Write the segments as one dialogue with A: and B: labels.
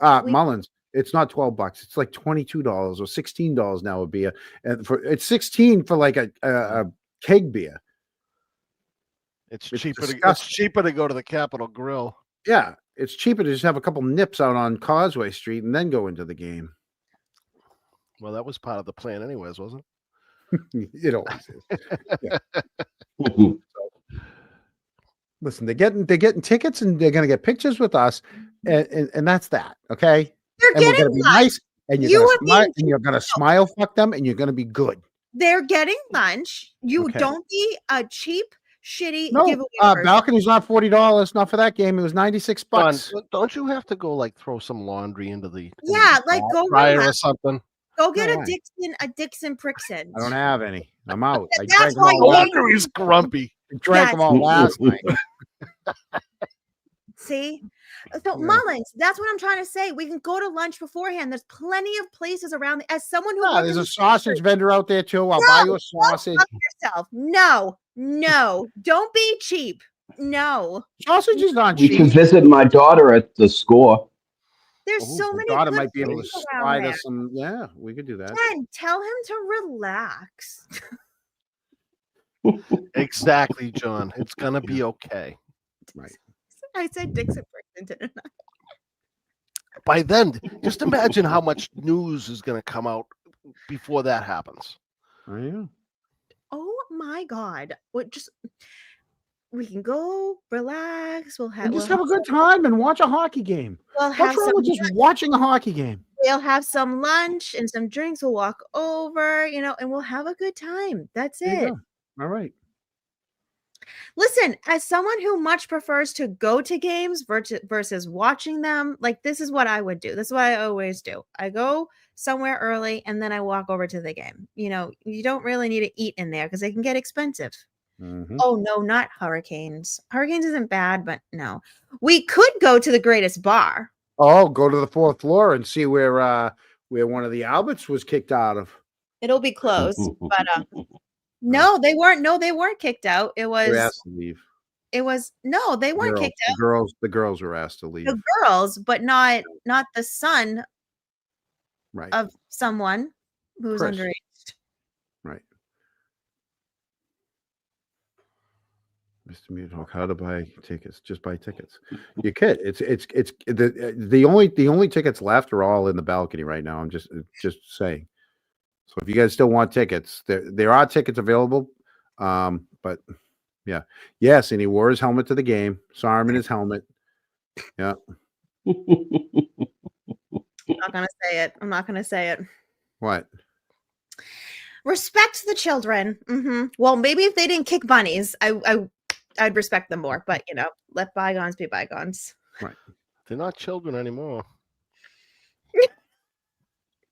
A: Uh,
B: We-
A: Mullins. It's not twelve bucks. It's like twenty two dollars or sixteen dollars now a beer, and for it's sixteen for like a a, a keg beer.
C: It's,
A: It's
C: cheaper. To, it's
A: disgusting.
C: cheaper to go to the Capitol Grill.
A: Yeah, it's cheaper to just have a couple nips out on Causeway Street and then go into the game.
C: Well, that was part of the plan, anyways, wasn't it?
A: it always is.
D: Ooh,
A: Listen, they're getting they're getting tickets and they're gonna get pictures with us, and and, and that's that. Okay,
B: They're
A: and we're gonna
B: getting
A: be
B: lunch.
A: nice, and you're
B: You
A: gonna
B: are being
A: smile, and you're gonna smile fuck them, and you're gonna be good.
B: They're getting lunch. You
A: Okay.
B: don't be a cheap, shitty
A: No,
B: giveaway.
A: uh,
B: person.
A: balcony's not forty dollars. Not for that game. It was ninety six
C: Don,
A: bucks.
C: don't- don't you have to go like throw some laundry into the into the
B: Yeah, like,
C: dry-
B: go
C: dryer or
B: relax.
C: something?
B: Go get
A: why?
B: a Dixon, a Dixon Prixon.
A: I don't have any. I'm out. I
B: That's
A: drank them
B: why
A: all,
B: you
A: last,
B: need-
C: Laundry's grumpy.
A: drank them
B: that's-
A: all last night.
B: See? So
A: Yeah.
B: Mullins, that's what I'm trying to say. We can go to lunch beforehand. There's plenty of places around. As someone who
A: No,
B: worked
A: there's
B: in
A: a sausage vendor out there too. I'll buy you a sausage.
B: yourself, no, no, don't be cheap. No,
A: Sausage is not
D: You can
A: cheap.
D: visit my daughter at the score.
B: there's
A: Ooh,
B: so
A: my
B: many.
A: daughter
B: good
A: might be able to
B: places around
A: slide
B: there.
A: us some. Yeah, we could do that.
B: Ken, tell him to relax.
C: Exactly, John. It's gonna be okay.
B: I said Dixon Prixon, didn't I?
C: By then, just imagine how much news is gonna come out before that happens.
A: Oh, yeah.
B: Oh my God. What just. We can go relax. We'll have
A: And just
B: we'll
A: have a good time and watch a hockey game.
B: We'll
A: What's
B: have
A: wrong
B: some.
A: with just watching a hockey game?
B: We'll have some lunch and some drinks. We'll walk over, you know, and we'll have a good time. That's
A: There you
B: it.
A: go. All right.
B: Listen, as someone who much prefers to go to games versus versus watching them, like this is what I would do. This is what I always do. I go somewhere early and then I walk over to the game. You know, you don't really need to eat in there because they can get expensive.
A: Mhm.
B: Oh no, not hurricanes. Hurricanes isn't bad, but no. We could go to the greatest bar.
A: Oh, go to the fourth floor and see where uh where one of the Alberts was kicked out of.
B: It'll be closed. but um no, they weren't no, they weren't kicked out. It
A: They
B: was
A: were asked to leave.
B: it was no, they weren't
A: Girls-
B: kicked
A: the girls, the girls were asked to leave.
B: out. The girls, but not not the son
A: Right.
B: of someone who's
A: Chris.
B: underage.
A: Mr. Mutalk, how to buy tickets? Just buy tickets. You could. It's it's it's the uh, the only the only tickets left are all in the balcony right now. I'm just uh, just saying. So if you guys still want tickets, there there are tickets available. Um, but yeah, yes, and he wore his helmet to the game. Saw him in his helmet.
B: I'm not gonna say it. I'm not gonna say it.
A: What?
B: Respect the children. hmm Well, maybe if they didn't kick bunnies, I, I I'd respect them more. But you know, let bygones be bygones.
C: They're not children anymore.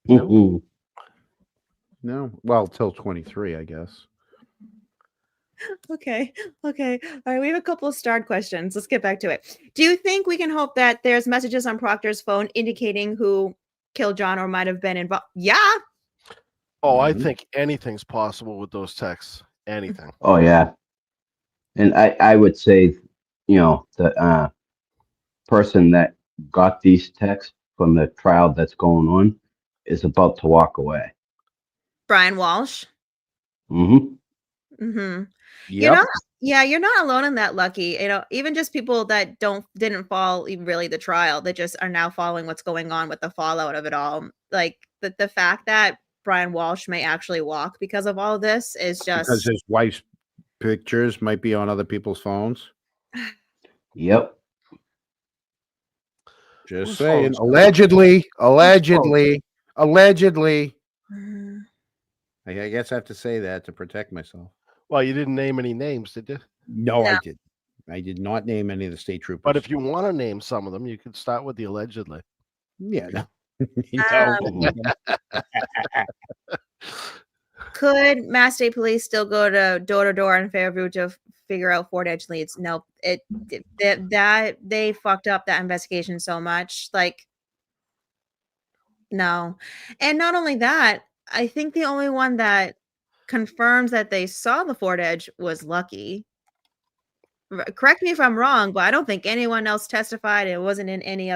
D: Oh,
A: No. Well, till 23, I guess.
B: Okay, okay. All right, we have a couple of starred questions. Let's get back to it. Do you think we can hope that there's messages on Proctor's phone indicating who killed John or might have been involved? Yeah,
C: Oh, I
D: Mhm.
C: think anything's possible with those texts. Anything.
D: Oh yeah, and I I would say, you know, the uh, person that got these texts from the trial that's going on is about to walk away.
B: Brian Walsh.
D: Mm-hmm.
B: Mm-hmm.
A: Yeah.
B: You're not, yeah, you're not alone in that, Lucky. You know, even just people that don't didn't follow e- really the trial, that just are now following what's going on with the fallout of it all. Like the the fact that Brian Walsh may actually walk because of all this is just
A: because his wife's pictures might be on other people's phones.
D: Yep.
A: Just
C: Whose
A: saying.
C: phones?
A: Allegedly, allegedly, allegedly.
B: Mm.
A: I I guess I have to say that to protect myself.
C: Well, you didn't name any names, did you?
A: No,
B: No.
A: I did. I did not name any of the state troopers.
C: But if you want to name some of them, you could start with the allegedly.
A: yeah, no.
C: Oh,
B: Um, could Mass State Police still go to door to door in Fairview to f- figure out Fort Edge leads? No, it, it that- that they fucked up that investigation so much. Like, no, and not only that, I think the only one that confirms that they saw the Fort Edge was Lucky. R- Correct me if I'm wrong, but I don't think anyone else testified. It wasn't in any other.